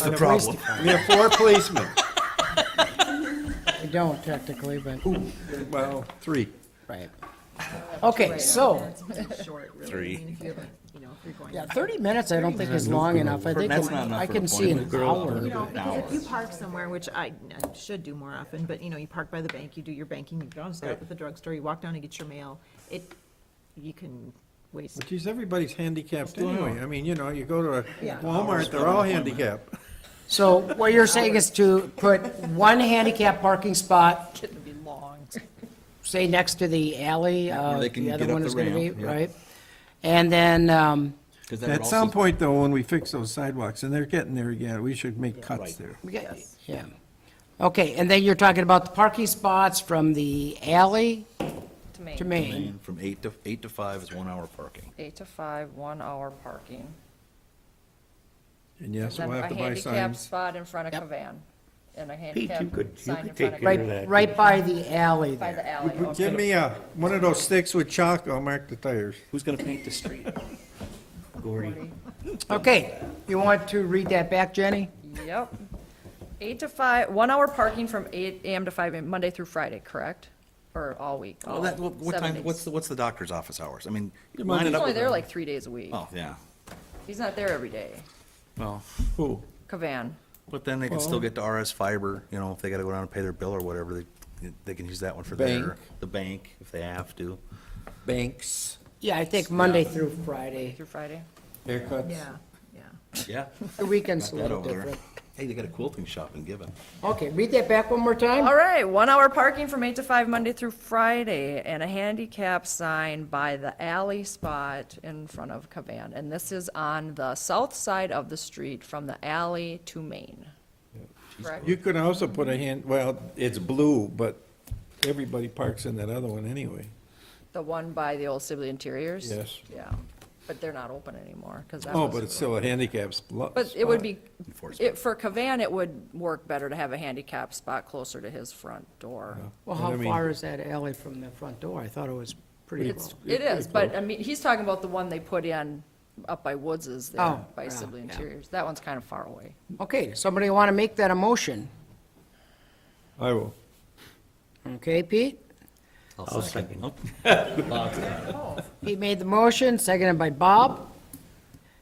the on police problem. department. There are four policemen. We don't technically, but, Well, three. right. Okay, so, It's pretty short, really. I Three. mean, if you have a- You know, if you're going. yeah, 30 minutes I don't think is long enough. I think That's not enough I for can an see an appointment. hour. You know, but- because if you park somewhere, which I I should do more often, but you know, you park by the bank, you do your banking, you don't stop at the drugstore, you walk down and get your mail. It, you can waste. Geez, everybody's handicapped anyway. I mean, you know, you go to a Yeah. Walmart, they're all handicapped. So what you're saying is to put one handicap parking spot, It'd be long. say next to the alley, uh, where they can the other get up one the is gonna be, ramp, yeah. right? And then, um, Because that would At some also, point, though, when we fix those sidewalks, and they're getting there again, we should make cuts Right. there. we got- yeah. Okay, and then you're talking about the parking spots from the alley To Maine. to Main. mean, from eight to, eight to five is one hour parking. Eight to five, one hour parking. And yes, Then we'll have a to buy handicap signs. spot in front Yep. of Cavan, and a you handicap could- you sign in could front of take care of Cavan. Right, right by the alley By the there. alley, Give okay. me a, one of those sticks with chalk, I'll mark the tires. Who's gonna paint the street? Gordy. Okay, you want to read that back, Jenny? Yep. Eight to five, one hour parking from eight AM to five AM, Monday through Friday, correct? Or all week? Well, Oh, that, what- what Oh, seven time, days. what's the, what's the doctor's office hours? I mean, line He's it up only with. there like three days a week. Oh, yeah. He's not there every day. Well, Who? Cavan, but then they can still get to RS Fiber, you know, if they gotta go down and pay their bill or whatever, they, they can use that one for their, Bank. the bank, if they have to. Banks. Yeah, I think Monday through Friday. through Friday. Haircuts. Yeah, yeah. Yeah. The weekend's a That little over there. different. Hey, they got a quilting shop in Gibbon. Okay, read that back one more time. All right, one hour parking from eight to five Monday through Friday and a handicap sign by the alley spot in front of Cavan. And this is on the south side of the street from the alley to Main. Correct? You could also put a hand, well, it's blue, but everybody parks in that other one anyway. The one by the old Sibley Interiors? Yes. Yeah, but they're not open anymore because that Oh, was. but it's still a handicap spot. But it would be, Enforcement. it, for Cavan, it would work better to have a handicap spot closer to his front door. Well, But I how mean- far is that alley from the front door? I thought it was pretty It's, close. it is, but I mean, he's talking about the one they put in up by Woods's there, Oh, by yeah, Sibley yeah. Interiors. That one's kind of far away. Okay, somebody want to make that a motion? I will. Okay, Pete? I'll second. Pete made the motion, seconded by Bob.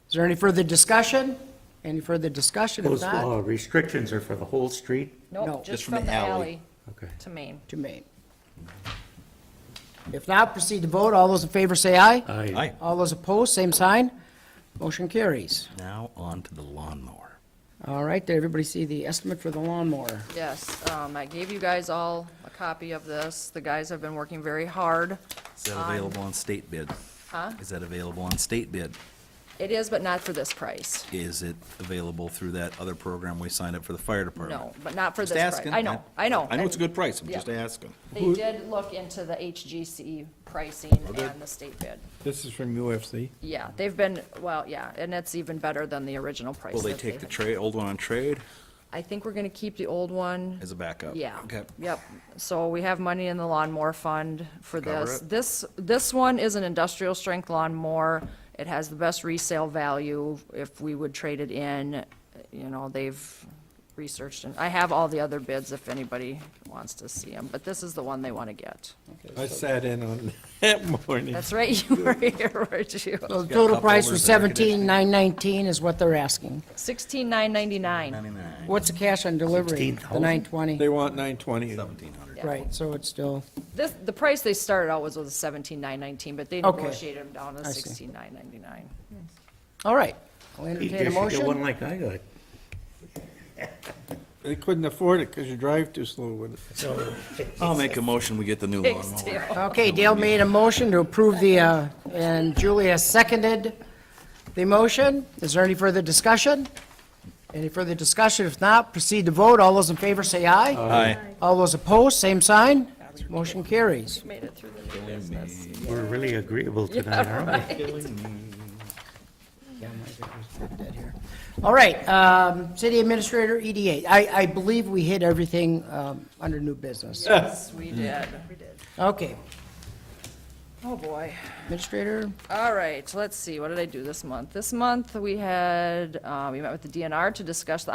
Is there any further discussion? Any further discussion? If Those not, uh, restrictions are for the whole street? No, Nope, just from the alley Okay. to Main. to me. If not, proceed to vote. All those in favor say aye. Aye. Hi, All those opposed, same sign. Motion carries. now on to the lawnmower. All right, did everybody see the estimate for the lawnmower? Yes, um, I gave you guys all a copy of this. The guys have been working very hard. Is that available on state bid? Huh? Is that available on state bid? It is, but not for this price. Is it available through that other program we signed up for the fire department? No, but not for Just this price. asking. I know, I know. I know it's a good price, I'm Yeah. just asking. They did look into the HGC E pricing Oh, and the state bid. This is from UFC. Yeah, they've been, well, yeah, and it's even better than the original price. Will they that take the had. trade, old one on trade I think we're gonna keep the old one. as a backup? Yeah. Okay. Yep, so we have money in the lawnmower fund for Cover this. it. This, this one is an industrial strength lawnmower. It has the best resale value. If we would trade it in, you know, they've researched, and I have all the other bids if anybody wants to see them, but this is the one they wanna get. I sat in on that morning. That's right, you were here, weren't you? So the got total cup price was holders and air seventeen nine nineteen is what they're asking. Sixteen nine ninety-nine. Ninety-nine, What's the cash on delivery? The 16,000? nine twenty, They want nine twenty. seventeen hundred. right, so it's still, This, the price they started out was was seventeen nine nineteen, but they Okay. negotiated them down to I see. sixteen nine ninety-nine. all right. I'll You entertain a should get motion. one like I got. They couldn't afford it because you drive too slow with it. So, I'll make a motion, we get the new Thanks, lawnmower. Dale. Okay, Dale made a motion to approve the, uh, and Julia seconded the motion. Is there any further discussion? Any further discussion? If not, proceed to vote. All those in favor say aye. Aye. All those opposed, same sign. Motion carries. Made it through the new business. we're really agreeable tonight, aren't we? Dead here. All right, um, city administrator, EDA. I, I believe we hit everything, um, under new business. Yes, we did. Okay, Oh, boy. administrator, All right, let's see, what did I do this month? This month, we had, uh, we met with the DNR to discuss the